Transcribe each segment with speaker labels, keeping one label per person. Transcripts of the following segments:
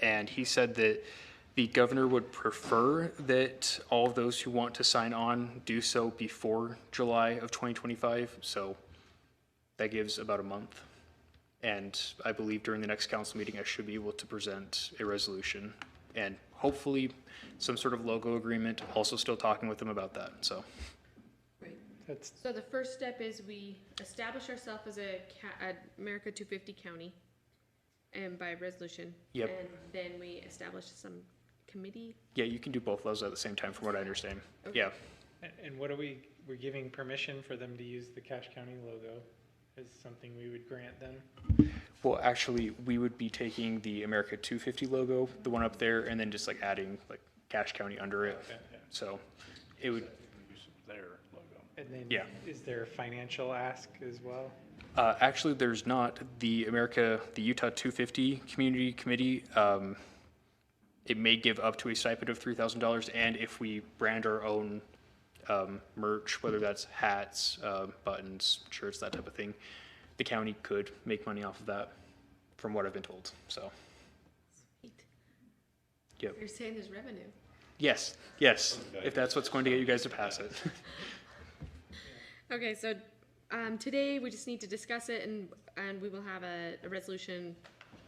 Speaker 1: and he said that the governor would prefer that all of those who want to sign on do so before July of 2025, so that gives about a month. And I believe during the next council meeting, I should be able to present a resolution and hopefully some sort of logo agreement, also still talking with them about that, so.
Speaker 2: That's,
Speaker 3: So the first step is we establish ourselves as a ca- a America two fifty county and by resolution.
Speaker 1: Yep.
Speaker 3: And then we establish some committee.
Speaker 1: Yeah, you can do both of those at the same time, from what I understand.
Speaker 3: Okay.
Speaker 1: Yeah,
Speaker 2: a- and what are we, we're giving permission for them to use the Cache County logo as something we would grant them?
Speaker 1: well, actually, we would be taking the America 250 logo, the one up there, and then just like adding like Cache County under it.
Speaker 2: Okay.
Speaker 1: So it would,
Speaker 4: their logo.
Speaker 2: And then,
Speaker 1: Yeah.
Speaker 2: is there a financial ask as well?
Speaker 1: Uh, actually, there's not. The America, the Utah 250 Community Committee, um, it may give up to a stipend of $3,000. And if we brand our own um, merch, whether that's hats, uh, buttons, shirts, that type of thing, the county could make money off of that, from what I've been told. So, yep.
Speaker 3: You're saying there's revenue.
Speaker 1: Yes, yes, if that's what's going to get you guys to pass it.
Speaker 3: Okay, so, um, today we just need to discuss it and, and we will have a, a resolution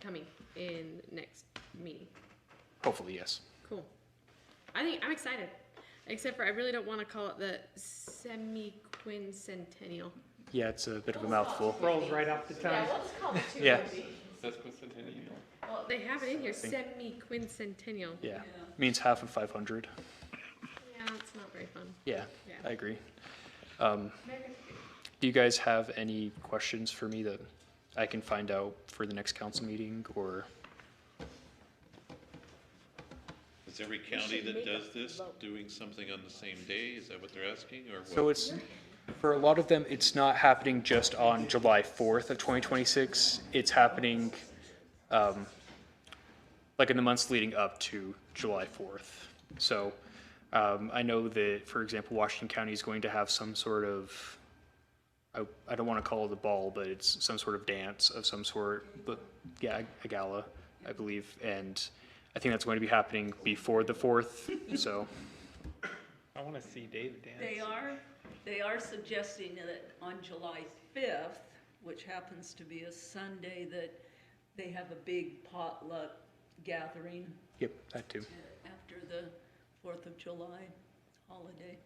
Speaker 3: coming in next meeting.
Speaker 1: Hopefully, yes.
Speaker 3: Cool. I think, I'm excited, except for I really don't wanna call it the semi-quincentennial.
Speaker 1: Yeah, it's a bit of a mouthful.
Speaker 2: Rolls right off the tongue.
Speaker 1: Yeah,
Speaker 3: Well, they have it in here, semi-quincentennial.
Speaker 1: yeah. Means half of 500.
Speaker 3: Yeah, it's not very fun.
Speaker 1: Yeah,
Speaker 3: Yeah.
Speaker 1: I agree. Um, do you guys have any questions for me that I can find out for the next council meeting or?
Speaker 5: Is every county that does this doing something on the same day? Is that what they're asking, or
Speaker 1: So
Speaker 5: what?
Speaker 1: it's, for a lot of them, it's not happening just on July fourth of twenty twenty-six. It's happening, um, like in the months leading up to July fourth. So, um, I know that, for example, Washington County is going to have some sort of, I, I don't want to call it a ball, but it's some sort of dance of some sort, but yeah, a gala, I believe. And I think that's going to be happening before the fourth, so.
Speaker 2: I want to see Dave dance.
Speaker 6: They are, they are suggesting that on July 5th, which happens to be a Sunday, that they have a big potluck gathering
Speaker 1: Yep, that too.
Speaker 6: after the 4th of July holiday,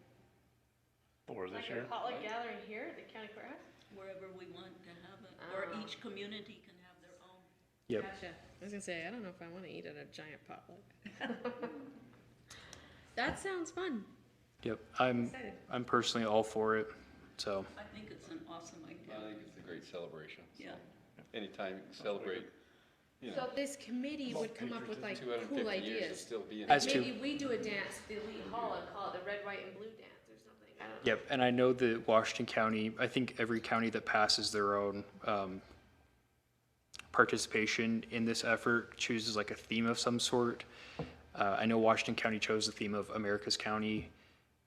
Speaker 4: Or this
Speaker 3: Like a potluck gathering here at the county courthouse?
Speaker 6: wherever we want to have it, or
Speaker 3: Oh.
Speaker 6: each community can have their own.
Speaker 1: Yep.
Speaker 3: Gotcha. I was gonna say, I don't know if I wanna eat at a giant potluck. That sounds fun.
Speaker 1: Yep, I'm,
Speaker 3: Excited.
Speaker 1: I'm personally all for it, so,
Speaker 6: I think it's an awesome
Speaker 7: I
Speaker 6: idea,
Speaker 7: think it's a great celebration.
Speaker 6: yeah.
Speaker 7: Anytime you can celebrate,
Speaker 3: So this committee would come up with like
Speaker 7: two hundred and
Speaker 3: cool
Speaker 7: fifty years will
Speaker 3: ideas.
Speaker 7: still be in.
Speaker 1: As- to-
Speaker 3: Maybe we do a dance, the Lee Hall, and call it the red, white, and blue dance or something. I don't know.
Speaker 1: yep, and I know that Washington County, I think every county that passes their own, um, participation in this effort chooses like a theme of some sort. Uh, I know Washington County chose the theme of America's County,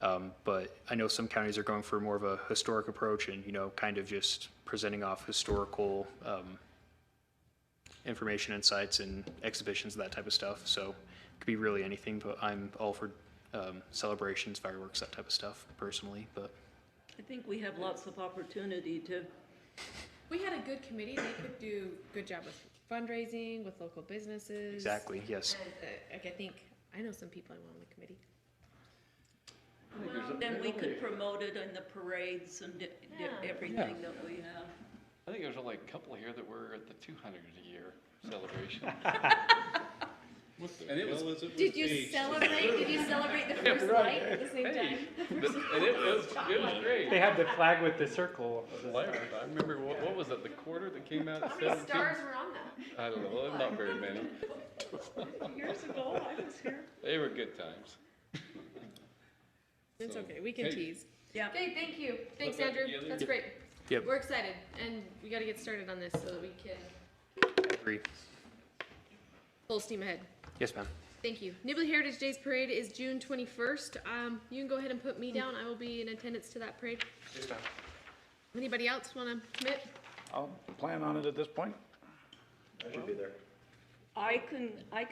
Speaker 1: um, but I know some counties are going for more of a historic approach and, you know, kind of just presenting off historical, um, information and sites and exhibitions, that type of stuff. So it could be really anything, but I'm all for um, celebrations, fireworks, that type of stuff personally. But
Speaker 6: I think we have lots of opportunity to,
Speaker 3: We had a good committee, they could do good job with fundraising, with local businesses.
Speaker 1: exactly, yes.
Speaker 3: And, uh, Like, I think, I know some people I want on the committee.
Speaker 6: then we could promote it in the parades and di- di-
Speaker 3: Yeah.
Speaker 6: everything that we have.
Speaker 7: I think there's only a couple here that were at the two hundred a year celebration. And it was,
Speaker 5: Well, is it
Speaker 3: Did
Speaker 5: with
Speaker 3: you
Speaker 5: the-
Speaker 3: celebrate, did you celebrate the first light at the same time?
Speaker 7: and it was, it was great.
Speaker 2: They had the flag with the circle.
Speaker 7: I remember, what, what was it, the quarter that came out
Speaker 3: How
Speaker 7: at
Speaker 3: many
Speaker 7: seventeen?
Speaker 3: stars were on that?
Speaker 7: I don't know, not very many.
Speaker 6: Years ago, I was here.
Speaker 7: They were good times.
Speaker 3: It's
Speaker 7: So,
Speaker 3: okay, we can
Speaker 7: hey.
Speaker 3: tease.
Speaker 6: Yeah.
Speaker 3: Okay, thank you. Thanks,
Speaker 7: that
Speaker 3: Andrew.
Speaker 7: together.
Speaker 3: That's great.
Speaker 1: Yep.
Speaker 3: We're excited, and we gotta get started on this so that we can
Speaker 1: Agree.
Speaker 3: full steam ahead.
Speaker 1: Yes, ma'am.
Speaker 3: Thank you. Nibley Heritage Days Parade is June twenty-first. Um, you can go ahead and put me down. I will be in attendance to that parade. Anybody else wanna commit?
Speaker 4: I'll plan on it at this point.
Speaker 6: I can, I